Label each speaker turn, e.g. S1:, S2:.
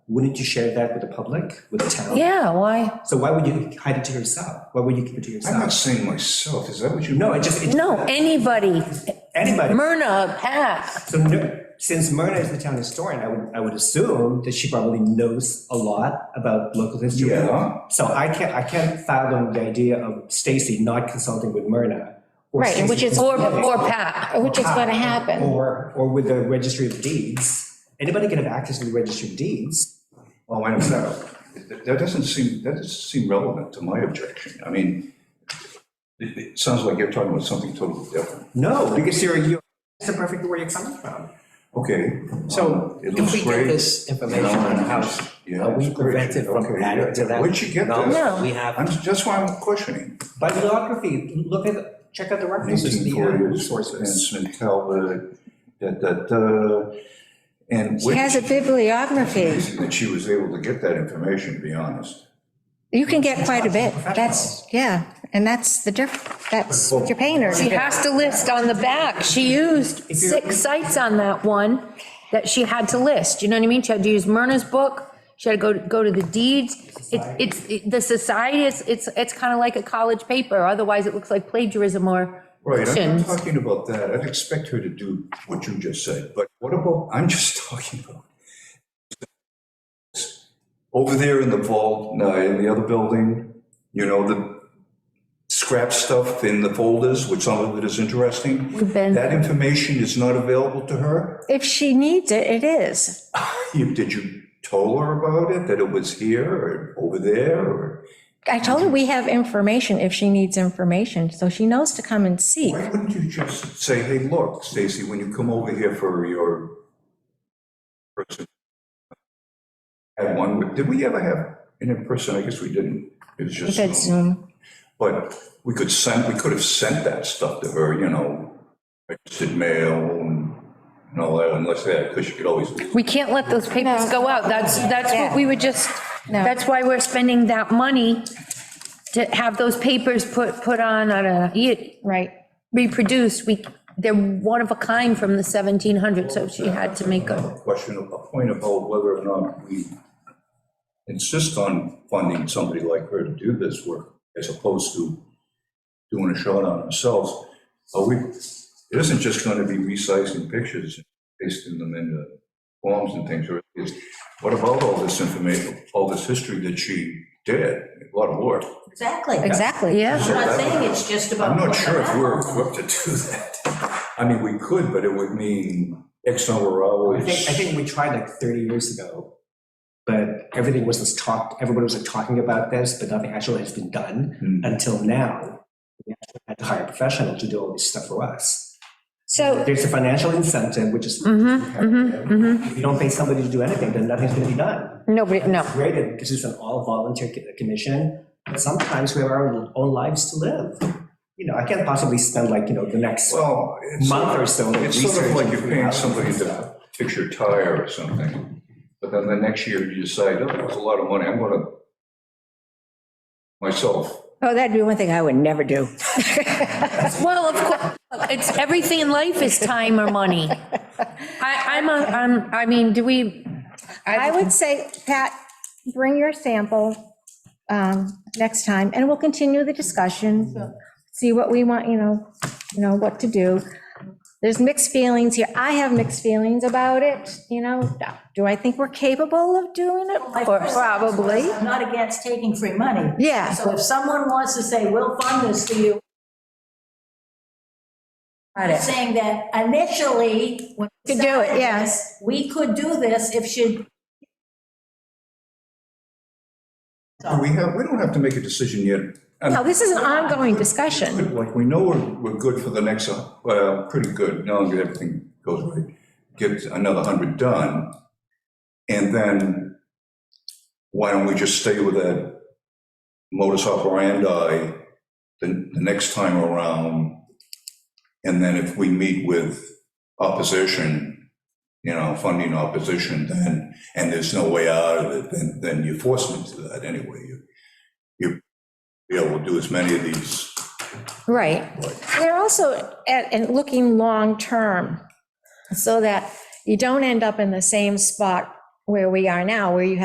S1: wouldn't you share that with the public, with the town?
S2: Yeah, why?
S1: So why would you hide it to yourself? Why would you keep it to
S3: I'm not
S1: yourself?
S3: saying myself, is that what you?
S1: No, it just, it-
S2: No, anybody,
S1: anybody.
S2: Myrna, Pat,
S1: So no- since Myrna is the town historian, I would, I would assume that she probably knows a lot about local history.
S3: Yeah.
S1: So I can't, I can't fathom the idea of Stacy not consulting with Myrna. or
S4: Right,
S1: Stacy
S4: which is-
S2: or,
S1: consulting
S2: or Pat.
S4: which is going to happen.
S1: Or, or with the registry of deeds. Anybody can have access to the registry of deeds.
S3: Oh, wait a minute. That- That doesn't seem, that doesn't seem relevant to my objection. I mean, it, it sounds like you're talking about something totally different.
S1: No, because you're, you're, that's perfectly where you're coming from.
S3: Okay. Um,
S5: So
S3: It
S5: if
S3: looks
S5: we get
S3: great.
S5: this information on the house,
S3: Yeah,
S5: are we
S3: it's great.
S5: prevented from
S3: Okay,
S5: adding to
S3: yeah.
S5: that?
S3: Where'd you get this?
S2: No.
S5: We have,
S3: I'm, that's why I'm questioning.
S1: Bibliography, look at, check out the references, the uh,
S3: 1940s,
S1: resources.
S3: Anson Calvert, da, da, da. And
S4: She
S3: which,
S4: has a bibliography.
S3: amazing that she was able to get that information, to be honest.
S4: You can get quite a bit. That's, yeah, and that's the diff, that's what your painter.
S2: she has to list on the back. She used
S1: If you're-
S2: six sites on that one that she had to list, you know what I mean? She had to use Myrna's book, she had to go, go to the deeds. It's, it's, it- the society is, it's, it's kind of like a college paper, otherwise it looks like plagiarism or
S3: Right, I'm
S2: Questions.
S3: not talking about that. I'd expect her to do what you just said, but what about, I'm just talking about. Over there in the vault, no, in the other building, you know, the scrap stuff in the folders, which some of it is interesting.
S2: We've been-
S3: That information is not available to her?
S4: If she needs it, it is.
S3: You- Did you tell her about it, that it was here or over there or?
S4: I told her we have information if she needs information, so she knows to come and seek.
S3: Why wouldn't you just say, hey, look, Stacy, when you come over here for your person, had one, with- did we ever have an in-person? I guess we didn't. It was
S4: We did
S3: just,
S4: Zoom.
S3: but we could send, we could have sent that stuff to her, you know, registered mail and and all that, unless that, because you could always,
S2: We can't let those papers go out. That's, that's what we would just,
S4: No.
S2: that's why we're spending that money to have those papers put, put on, on a, you-
S4: Right.
S2: reproduced. We, they're one of a kind from the 1700s, so she had to make a,
S3: question, a point about whether or not we insist on funding somebody like her to do this work as opposed to doing a shot on ourselves. Are we, it isn't just going to be resizing pictures, and pasting them into forms and things, or is, what about all this information, all this history that she did, a lot of work?
S6: Exactly.
S4: Exactly.
S2: yeah.
S6: I'm not saying it's just about.
S3: I'm not
S6: what the
S3: sure if we're
S6: map-
S3: equipped to do that. I mean, we could, but it would mean X number of
S1: I
S3: hours.
S1: think, I think we tried like 30 years ago, but everything was just talked, everybody was like talking about this, but nothing actually has been done
S3: Hmm.
S1: until now. We actually had to hire a professional to do all this stuff for us.
S4: So
S1: There's a financial incentive, which is,
S2: Mm-hmm, mm-hmm, mm-hmm.
S1: if you don't pay somebody to do anything, then nothing's going to be done.
S2: Nobody, no.
S1: Great, that this is an all-volunteer co- uh, commission, but sometimes we have our own lives to live. You know, I can't possibly spend like, you know, the next
S3: Well, it's
S1: month
S3: sort
S1: or
S3: of,
S1: so. like,
S3: it's sort of like
S1: researching
S3: you're
S1: freelancers
S3: paying
S1: and
S3: somebody
S1: stuff.
S3: to fix your tire or something, but then the next year you decide, oh, that's a lot of money, I'm gonna, myself,
S4: Oh, that'd be one thing I would never do.
S2: Well, of course, it's, everything in life is time or money. I, I'm, a- I'm, I mean, do we,
S4: I would say, Pat, bring your sample um, next time, and we'll continue the discussion, see what we want, you know, you know, what to do. There's mixed feelings here. I have mixed feelings about it, you know. Do I think we're capable of doing
S6: My
S4: it?
S6: first thought was,
S4: Probably.
S6: I'm not against taking free money.
S4: Yeah.
S6: So if someone wants to say, we'll fund this for you. I'm saying that initially, when. we
S4: Could do it,
S6: started
S4: yeah.
S6: this, We could do this if she.
S3: we have, we don't have to make a decision yet. And
S4: No, this is an ongoing discussion.
S3: good, Like, we know we're, we're good for the next, uh, well, pretty good, now that everything goes right, get another hundred done, and then why don't we just stay with that modus operandi the, the next time around? And then if we meet with opposition, you know, funding opposition, then, and there's no way out of it, then, then you force them to that anyway. You- You, be able to do as many of these
S4: Right. They're also, at- and looking long-term, so that you don't end up in the same spot where we are now, where you have